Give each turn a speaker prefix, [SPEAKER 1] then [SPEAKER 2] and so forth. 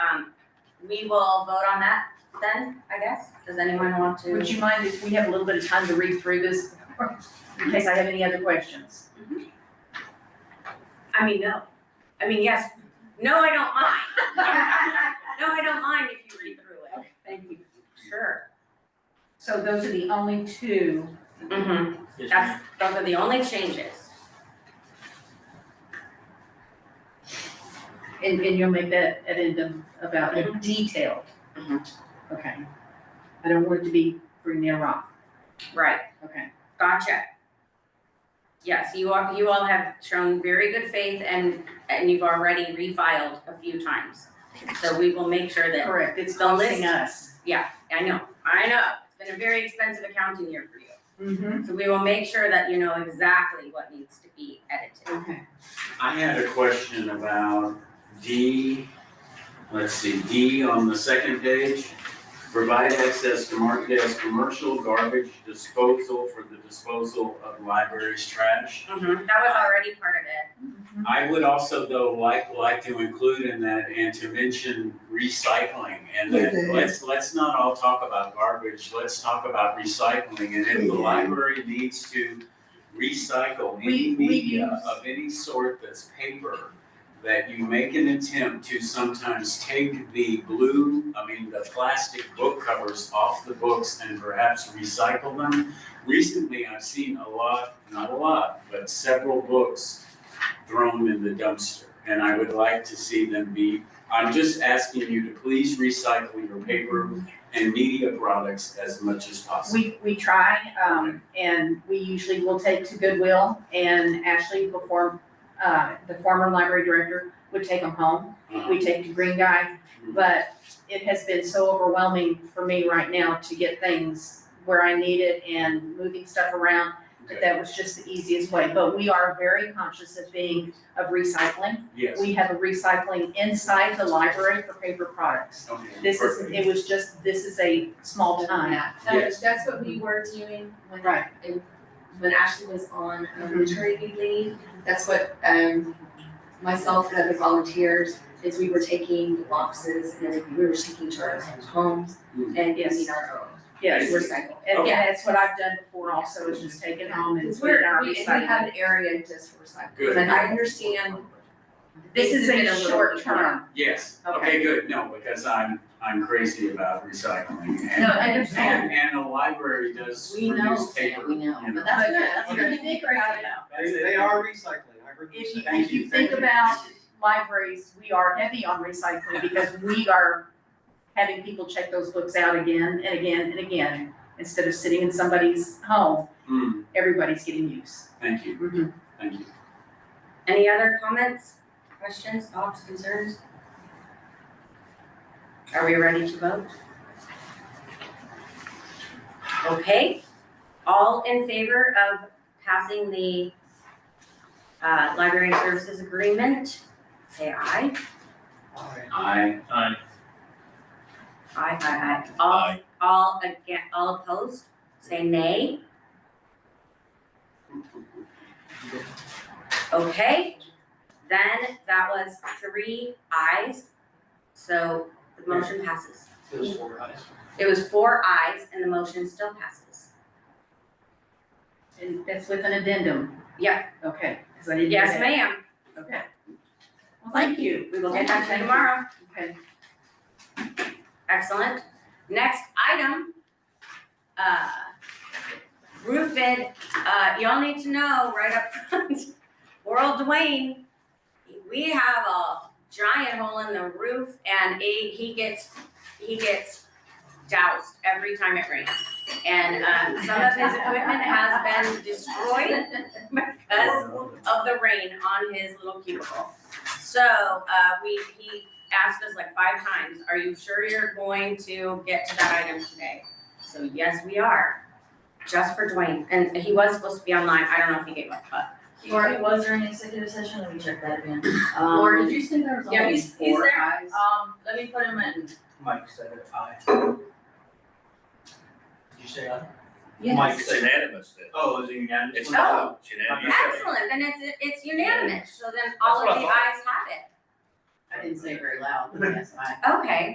[SPEAKER 1] Um, we will vote on that then, I guess. Does anyone want to?
[SPEAKER 2] Would you mind if we have a little bit of time to read through this, in case I have any other questions?
[SPEAKER 1] I mean, no. I mean, yes. No, I don't mind. No, I don't mind if you read through it.
[SPEAKER 2] Thank you.
[SPEAKER 1] Sure.
[SPEAKER 2] So those are the only two.
[SPEAKER 1] Mm-hmm.
[SPEAKER 3] Yes, ma'am.
[SPEAKER 1] That's, those are the only changes.
[SPEAKER 2] And, and you'll make that addendum about the detail.
[SPEAKER 1] Mhm.
[SPEAKER 2] Okay. I don't want it to be for near rock,
[SPEAKER 1] Right.
[SPEAKER 2] okay.
[SPEAKER 1] Gotcha. Yes, you all, you all have shown very good faith and, and you've already refiled a few times. So we will make sure that,
[SPEAKER 2] Correct, it's
[SPEAKER 1] The list.
[SPEAKER 2] costing us.
[SPEAKER 1] I know, I know, it's been a very expensive accounting year for you.
[SPEAKER 2] Mm-hmm.
[SPEAKER 1] So we will make sure that you know exactly what needs to be edited.
[SPEAKER 2] Okay.
[SPEAKER 3] I had a question about D, let's see, D on the second page. Provide access to market as commercial garbage disposal for the disposal of library's trash.
[SPEAKER 1] Mhm, that was already part of it.
[SPEAKER 2] Mm-hmm.
[SPEAKER 3] I would also though like, like to include in that and to mention recycling and that,
[SPEAKER 4] Okay.
[SPEAKER 3] let's, let's not all talk about garbage, let's talk about recycling. And if the
[SPEAKER 4] Okay.
[SPEAKER 3] library needs to recycle any
[SPEAKER 2] We- we
[SPEAKER 3] media
[SPEAKER 2] use-
[SPEAKER 3] of any sort that's paper, that you make an attempt to sometimes take the blue, I mean, the plastic book covers off the books and perhaps recycle them. Recently, I've seen a lot, not a lot, but several books thrown in the dumpster. And I would like to see them be, I'm just asking you to please recycle your paper and media products as much as possible.
[SPEAKER 2] We, we try, um, and we usually will take to Goodwill and Ashley before, uh, the former library director would take them home.
[SPEAKER 3] Um,
[SPEAKER 2] We take to Green Guy, but it has been so overwhelming for me right now to get things where I need it and moving stuff around
[SPEAKER 3] Okay.
[SPEAKER 2] that was just the easiest way, but we are very conscious of being, of recycling.
[SPEAKER 3] Yes,
[SPEAKER 2] We have a recycling inside the library for paper products.
[SPEAKER 3] okay,
[SPEAKER 2] This is,
[SPEAKER 3] perfect.
[SPEAKER 2] it was just, this is a small time.
[SPEAKER 5] Yeah, that was- that's what we were doing when
[SPEAKER 2] Right.
[SPEAKER 5] it- when Ashley was on um,
[SPEAKER 2] Mhm.
[SPEAKER 5] maternity leave. That's what um myself and other volunteers is we were taking boxes and then we were taking to our homes and
[SPEAKER 2] Yes.
[SPEAKER 5] getting our own.
[SPEAKER 2] Yes,
[SPEAKER 3] we're-
[SPEAKER 5] Recycle.
[SPEAKER 2] and
[SPEAKER 3] Okay.
[SPEAKER 2] that's what I've done before also, is just take it home and
[SPEAKER 5] Because
[SPEAKER 2] put it in
[SPEAKER 5] we're,
[SPEAKER 2] our
[SPEAKER 5] we, we
[SPEAKER 2] recycling.
[SPEAKER 5] have an area just for recycling.
[SPEAKER 3] Good.
[SPEAKER 5] And I understand
[SPEAKER 2] This
[SPEAKER 5] things
[SPEAKER 2] is
[SPEAKER 5] have been
[SPEAKER 2] a
[SPEAKER 5] little-
[SPEAKER 2] short term,
[SPEAKER 3] Yes, okay, good, no, because I'm, I'm crazy about recycling and.
[SPEAKER 5] No, I understand.
[SPEAKER 3] And, and the library does
[SPEAKER 5] We know,
[SPEAKER 3] produce paper.
[SPEAKER 5] we know,
[SPEAKER 3] you
[SPEAKER 5] but that's
[SPEAKER 2] But
[SPEAKER 5] good, that's
[SPEAKER 2] if
[SPEAKER 5] good.
[SPEAKER 2] you think about it,
[SPEAKER 3] That's it.
[SPEAKER 6] They, they are recycling, I heard you
[SPEAKER 2] if
[SPEAKER 6] say.
[SPEAKER 2] you,
[SPEAKER 3] Thank
[SPEAKER 2] if you
[SPEAKER 3] you,
[SPEAKER 2] think
[SPEAKER 3] thank you.
[SPEAKER 2] about libraries, we are heavy on recycling because we are having people check those books out again and again and again, instead of sitting in somebody's home,
[SPEAKER 3] Hmm,
[SPEAKER 2] everybody's getting use.
[SPEAKER 3] thank you,
[SPEAKER 5] Mm-hmm.
[SPEAKER 2] Mhm.
[SPEAKER 3] thank you.
[SPEAKER 1] Any other comments, questions, thoughts, concerns? Are we ready to vote? Okay, all in favor of passing the uh library services agreement, say aye.
[SPEAKER 6] Alright.
[SPEAKER 3] I,
[SPEAKER 1] Aye, aye, aye. All, all again, all opposed, say nay. Okay, then that was three ayes, so the motion passes.
[SPEAKER 6] Those four eyes.
[SPEAKER 1] It was four ayes and the motion still passes.
[SPEAKER 2] And that's with an addendum?
[SPEAKER 1] Yeah.
[SPEAKER 2] Okay, because I didn't.
[SPEAKER 1] Yes, ma'am,
[SPEAKER 2] Okay. Well, thank you. We will
[SPEAKER 1] we'll get back
[SPEAKER 2] get
[SPEAKER 1] to you tomorrow.
[SPEAKER 2] Okay.
[SPEAKER 1] Excellent. Next item, uh, roof bid, uh, y'all need to know right up front, World Dwayne, we have a giant hole in the roof and he, he gets, he gets doused every time it rains. And, um, some of his equipment has been destroyed because of the rain on his little cubicle. So, uh, we, he asked us like five times, are you sure you're going to get to that item today? So yes, we are, just for Dwayne, and he was supposed to be online, I don't know if he gave up, but.
[SPEAKER 5] Or it was during executive session, let me check that again. Um,
[SPEAKER 2] Or
[SPEAKER 5] you say there was
[SPEAKER 1] Yeah,
[SPEAKER 5] only
[SPEAKER 1] he's- he's
[SPEAKER 5] four
[SPEAKER 1] there.
[SPEAKER 5] eyes? Um, let me put him in.
[SPEAKER 6] Mike said it, aye. Did you say aye?
[SPEAKER 5] Yes.
[SPEAKER 6] Mike
[SPEAKER 7] It's
[SPEAKER 6] said.
[SPEAKER 7] unanimous then.
[SPEAKER 6] Oh, is it unanimous?
[SPEAKER 7] It's
[SPEAKER 1] Oh.
[SPEAKER 7] it's unanimous.
[SPEAKER 1] Excellent, then it's, it's unanimous, so then
[SPEAKER 7] That's
[SPEAKER 1] all
[SPEAKER 7] what
[SPEAKER 1] of
[SPEAKER 7] I
[SPEAKER 1] the
[SPEAKER 7] thought.
[SPEAKER 1] eyes have it,
[SPEAKER 2] I didn't say it very loud, but yes, I.
[SPEAKER 1] okay.